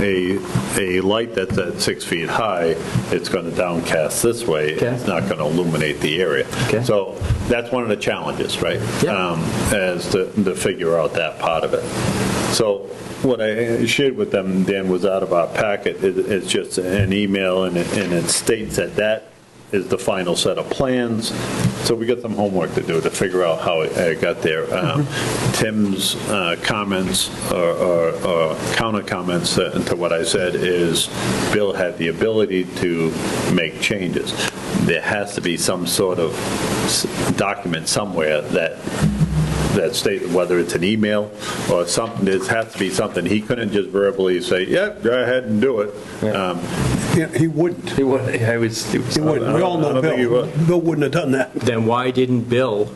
a, a light that's at six feet high, it's going to downcast this way. Okay. It's not going to illuminate the area. Okay. So that's one of the challenges, right? Yeah. Um, As to, to figure out that part of it. So what I shared with them, Dan, was out of our packet. It- It's just an email and it, and it states that that is the final set of plans. So we got some homework to do to figure out how it uh, got there. Um, Tim's uh, comments or- or or counter comments to to what I said is Bill had the ability to make changes. There has to be some sort of s- document somewhere that that state, whether it's an email or something, it has to be something. He couldn't just verbally say, yep, go ahead and do it. Um, Yeah, He wouldn't. It wa- I was, it was- He wouldn't. We all I know don't think he Bill. would. Bill wouldn't have done that. then why didn't Bill,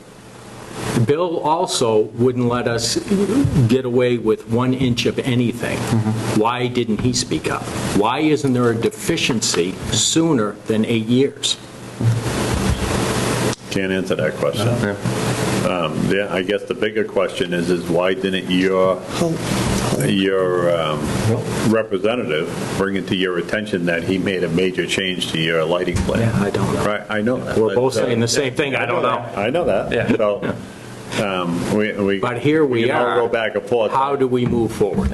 Bill also wouldn't let us get away with one inch of anything. Why didn't he speak up? Why isn't there a deficiency sooner than eight years? Can't answer that question. Um, Yeah, I guess the bigger question is, is why didn't your, your um, representative bring it to your attention that he made a major change to your lighting plan? Yeah, I don't know. Right, I know that. uh, We're both saying the same thing, I don't know. I know that. Yeah. So, um, we, we. But here we can all are. go back and forth. How do we move forward?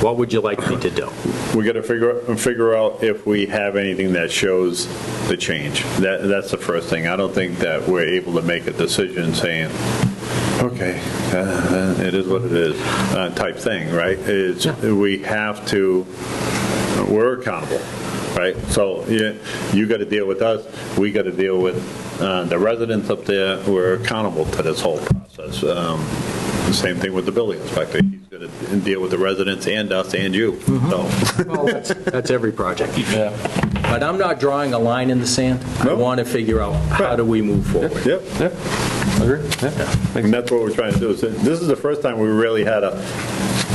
What would you like me to do? We got to figure, figure out if we have anything that shows the change. That, that's the first thing. I don't think that we're able to make a decision saying, okay, uh, it is what it is, uh, type thing, right? It's, Yeah. we have to, we're accountable, right? So you, you got to deal with us, we got to deal with uh, the residents up there, we're accountable to this whole process. Um, the Same thing with the building inspector, he's going to deal with the residents and us and you, so. Well, that's- That's every project. But I'm not drawing a line in the sand. I No. want to figure out how do we move forward? Yep, Yep, agree, yeah. and that's what we're trying to do. So This is the first time we really had a,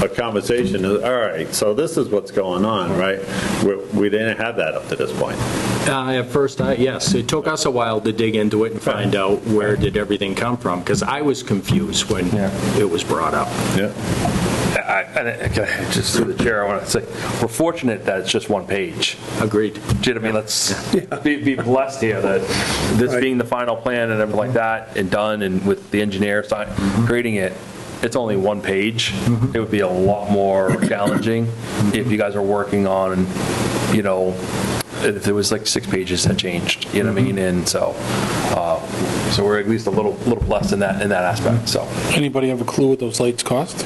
a conversation, all right, so this is what's going on, right? We- We didn't have that up to this point. Uh, At first, I, yes, it took us a while to dig into it and find out where did everything come from, because I was confused when Yeah. it was brought up. Yeah. I- and I- okay, Just through the chair, I want to say, we're fortunate that it's just one page. Agreed. Do you know what I mean? Let's be be blessed here that this Right. being the final plan and everything like that, and done, and with the engineer sign- creating it, it's only one page. It would be a lot more challenging if you guys are working on, you know, if there was like six pages that changed, you know what I mean? And so, uh, so we're at least a little, little blessed in that, in that aspect, so. Anybody have a clue what those lights cost?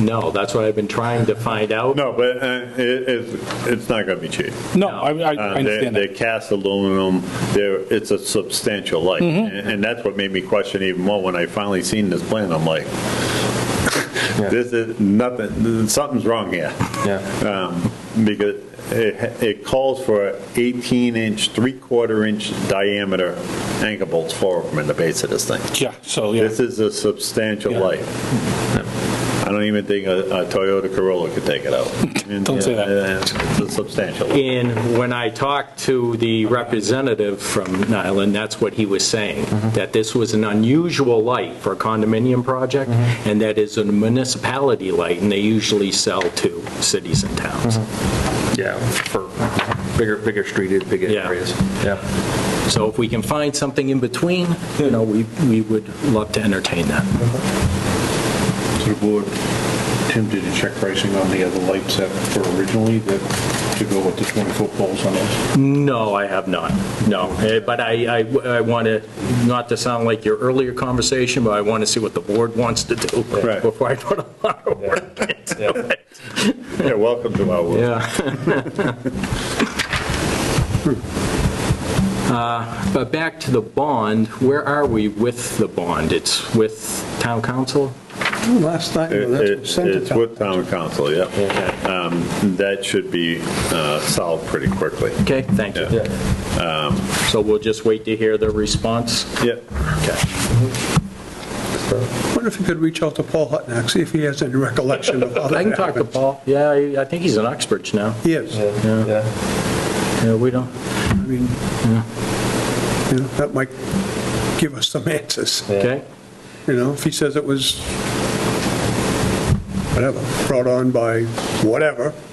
No, that's what I've been trying to find out. No, but uh, it, it's, it's not going to be cheap. No, I, I I Uh, understand They're that. they're cast aluminum, they're, it's a substantial light. And and that's what made me question even more when I finally seen this plan, I'm like, this is nothing, something's wrong here. Yeah. Um, Because it, it calls for 18-inch, three-quarter-inch diameter anchor bolts, four of them in the base of this thing. Yeah, so, yeah. This is a substantial Yeah. light. I don't even think a a Toyota Corolla could take it out. Don't say that. It's a substantial light. And when I talked to the representative from Nyland, that's what he was saying, that this was an unusual light for a condominium project, and that is a municipality light, and they usually sell to cities and towns. Yeah, for bigger, bigger street, bigger Yeah. areas. Yeah. So if we can find something in between, you know, we, we would love to entertain that. to the board, Tim did a check pricing on the other lights that were originally that to go with the 20-foot poles on those. No, I have not, no. Eh, But I, I, I want to, not to sound like your earlier conversation, but I want to see what the board wants to do Right. before I put a lot of work into it. Yeah, welcome to our world. Yeah. Uh, But back to the bond, where are we with the bond? It's with town council? Last night, It- that's it- what sent it It's out. with town council, yeah. Um, That should be uh, solved pretty quickly. Okay, thank you. Yeah. Um, So we'll just wait to hear the response? Yeah, Wonder if you could reach out to Paul Hutnick, see if he has any recollection of how that I can talk to happened. Paul. Yeah, I I think he's in Oxbridge now. He is. Yeah, we don't. I mean, you know, that might give us some answers. Okay. You know, if he says it was, whatever, brought on by whatever,